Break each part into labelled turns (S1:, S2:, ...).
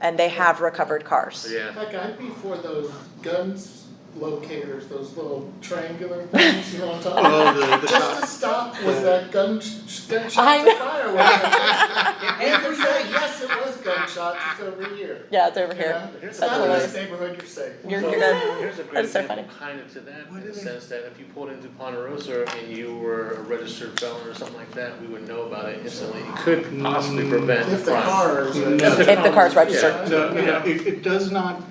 S1: and they have recovered cars.
S2: Yeah.
S3: Like I'd be for those guns locators, those little triangular things, you know what I'm talking about?
S4: Oh, the, the
S3: Just to
S4: shot.
S3: stop was that gun, sh-
S1: I
S3: gunshots to
S1: know.
S3: fire. or whatever. And you can say, yes, it was gunshots, it's over here.
S1: Yeah, it's over
S3: You know?
S1: here.
S2: Here's
S3: It's
S2: the
S3: not a
S2: thing.
S3: nice neighborhood, you're safe.
S1: You're
S2: So,
S1: good.
S2: Here's a great
S1: That's so
S2: example
S1: funny.
S2: kind of to that,
S4: What
S2: in the
S4: is it?
S2: sense that if you pulled into Ponderosa and you were a registered felon or something like that, we would know about it instantly. It could
S4: Mm.
S2: possibly prevent crime.
S3: If the cars.
S4: No. If
S1: the car's registered.
S4: No, no, no, it, it does not.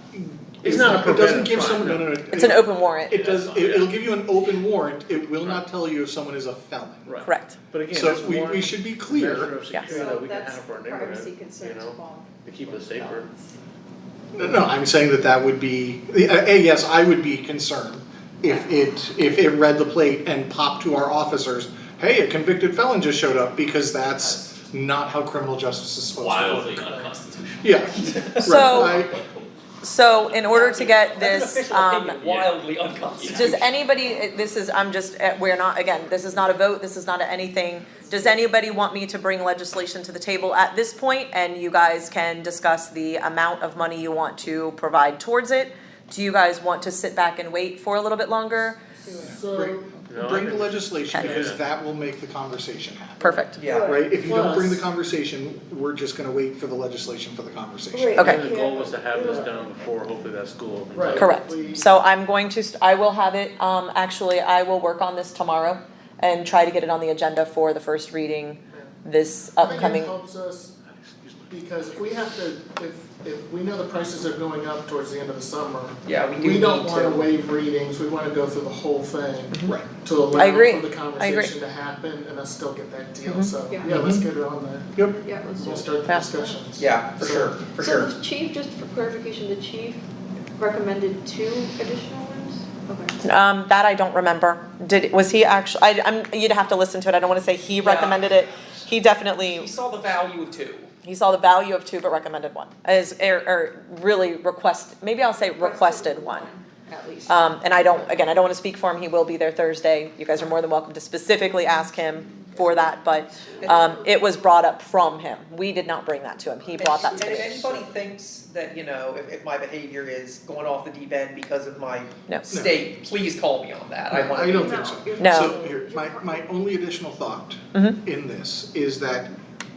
S2: It's not a
S4: It doesn't give
S2: preventive
S4: someone, no,
S2: crime,
S4: no, no.
S1: It's an open warrant,
S4: It does, it, it'll give you an open warrant, it will not tell you if someone is a felon.
S2: Right.
S1: correct.
S2: But again,
S4: So
S2: that's
S4: we,
S2: one
S4: we should be
S2: measure
S4: clear,
S2: of
S1: Yes.
S2: security that we can have for our
S5: That's privacy
S2: neighborhood, you
S5: concerns,
S2: know,
S5: Paul.
S2: to keep us safer.
S4: no, no, I'm saying that that would be, uh, A, yes, I would be concerned if it, if it read the plate and popped to our officers, hey, a convicted felon just showed up, because that's not how criminal justice is supposed to work.
S6: wildly unconstitutional.
S4: Yeah,
S1: So-
S4: right, I-
S1: So in order to get this,
S6: Official
S1: um,
S6: opinion, wildly unconstitutional.
S1: Does anybody, this is, I'm just, eh, we're not, again, this is not a vote, this is not a anything. Does anybody want me to bring legislation to the table at this point and you guys can discuss the amount of money you want to provide towards it? Do you guys want to sit back and wait for a little bit longer?
S3: So,
S2: No, I
S4: bring the
S2: think-
S4: legislation,
S1: Okay.
S4: because
S2: Yeah.
S4: that will make the conversation happen.
S1: Perfect.
S6: Yeah.
S4: Right, if you don't bring the
S3: Plus-
S4: conversation, we're just gonna wait for the legislation for the conversation.
S5: Right.
S1: Okay.
S2: The goal was to have this done before hopefully that school. opens up.
S3: Right.
S1: Correct. So I'm going to, st- I will have it, um, actually, I will work on this tomorrow and try to get it on the agenda for the first reading this
S3: I think
S1: upcoming.
S3: it helps us
S2: Excuse me.
S3: because if we have to, if, if we know the prices are going up towards the end of the summer.
S6: Yeah, we do
S3: We don't
S6: need
S3: wanna
S6: to.
S3: waive readings, we wanna go through the whole thing.
S4: Right.
S3: to allow
S1: I agree. Mm-hmm.
S3: for the
S1: I agree.
S3: conversation to happen and us still get that deal, so,
S5: Yeah.
S3: yeah, let's get it on there,
S4: Yep.
S5: Yeah, let's do
S3: we'll
S5: it.
S3: start the
S1: Yeah.
S3: discussions.
S6: Yeah, for sure, for
S5: So
S6: sure.
S5: the chief, just for clarification, the chief recommended two additional rooms? Okay.
S1: Um, that I don't remember. Did, was he actually, I, I'm, you'd have to listen to it, I don't wanna say he
S6: Yeah.
S1: recommended it. He
S6: We
S1: definitely,
S6: saw the value of two.
S1: he saw the value of two but recommended one, as, or, or really request, maybe I'll say requested one.
S5: At least.
S1: Um, and I don't, again, I don't wanna speak for him, he will be there Thursday, you guys are more than welcome to specifically ask him for that, but, um, it was brought up from him, we did not bring that to him, he brought that to
S7: And if
S1: me.
S7: anybody thinks that, you know, if, if my behavior is going off the deep end because of my
S1: No.
S7: state, please call me on that, I
S4: No,
S7: wanna.
S4: I
S7: be-
S4: don't think so.
S1: No.
S4: So here, my, my only additional thought in this is that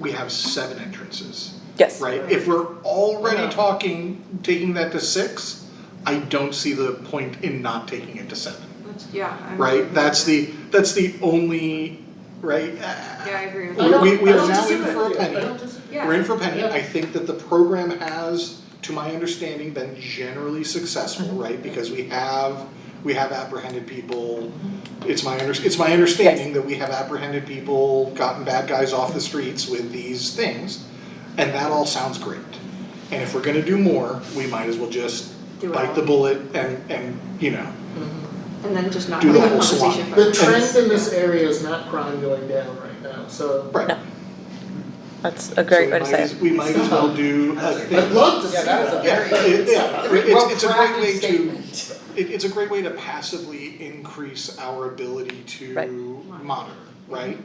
S4: we have seven entrances,
S1: Yes,
S4: right? If we're
S7: Yeah.
S4: already talking, taking that to six, I don't see the point in not taking it to seven,
S5: Yeah. I'm-
S4: right? That's the, that's the only, right?
S5: Yeah, I agree with
S4: We-
S5: that.
S4: we- we
S3: I
S4: are
S3: don't
S4: now in
S3: disagree.
S4: for a penny.
S3: I don't disagree.
S5: Yeah.
S4: We're in for a penny,
S3: Yeah.
S4: I think that the program has, to my understanding, been generally successful,
S5: Mm-hmm.
S4: right? Because we have, we have apprehended people, it's my under, it's my understanding that we have apprehended people, gotten bad guys off the streets with these things. And that all sounds great, and if we're gonna do more, we might as well just
S5: Do it all.
S4: bite the bullet and, and, you know,
S5: And then just not
S4: Do
S5: have
S4: the
S5: a
S4: whole swap.
S5: conversation.
S3: The trend in this area is not crime going down right now, so
S4: right.
S1: that's a great
S4: So
S1: way to say
S4: We might as,
S1: it.
S4: we might as well do a thing.
S3: I'd love to see
S7: Yeah, that is a
S3: that.
S4: Yeah,
S7: very.
S4: it, yeah, it's, it's a great way
S7: Well-crafted
S4: to, it, it's a great way to passively increase our ability
S1: Right.
S4: to monitor, right?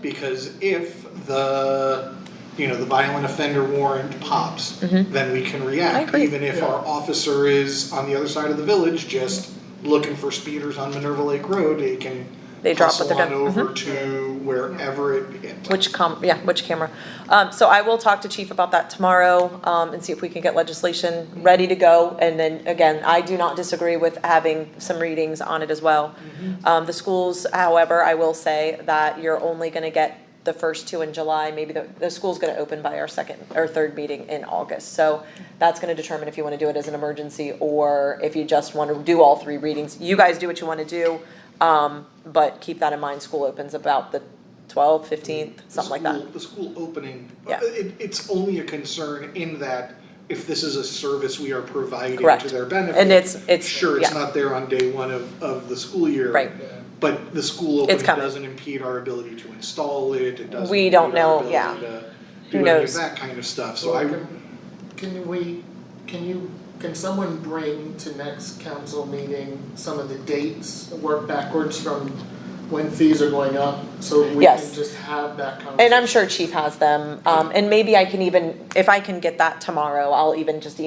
S4: Because if the, you know, the violent offender warrant pops, then we can react.
S1: Mm-hmm. I agree.
S4: Even if our officer is on the other side of the village, just looking for speeders on Minerva Lake Road, they can
S1: They drop what they're
S4: hustle
S1: doing. Mm-hmm.
S4: on over to wherever it hit.
S1: Which com, yeah, which camera. Um, so I will talk to chief about that tomorrow, um, and see if we can get legislation ready to go. And then again, I do not disagree with having some readings on it as well.
S4: Mm-hmm.
S1: Um, the schools, however, I will say that you're only gonna get the first two in July, maybe the, the school's gonna open by our second or third meeting in August. So that's gonna determine if you wanna do it as an emergency or if you just wanna do all three readings. You guys do what you wanna do, um, but keep that in mind, school opens about the twelfth, fifteenth, something like that.
S4: The school the school opening, Uh,
S1: Yeah.
S4: it, it's only a concern in that if this is a service we are providing
S1: Correct.
S4: to their benefit.
S1: And it's, it's,
S4: Sure, it's
S1: yeah.
S4: not there on day one of, of the school year.
S1: Right.
S4: But the school
S1: It's
S4: opening
S1: coming.
S4: doesn't impede our ability to install it, it doesn't
S1: We don't
S4: impede our
S1: know, yeah.
S4: ability to
S1: Who
S4: do any of
S1: knows?
S4: that kind of stuff, so I,
S3: Can- Can we, can you, can someone bring to next council meeting some of the dates, work backwards from when fees are going up? So we
S1: Yes.
S3: can just have that conversation.
S1: And I'm sure Chief has them, um, and maybe I can even if I can get that tomorrow, I'll even just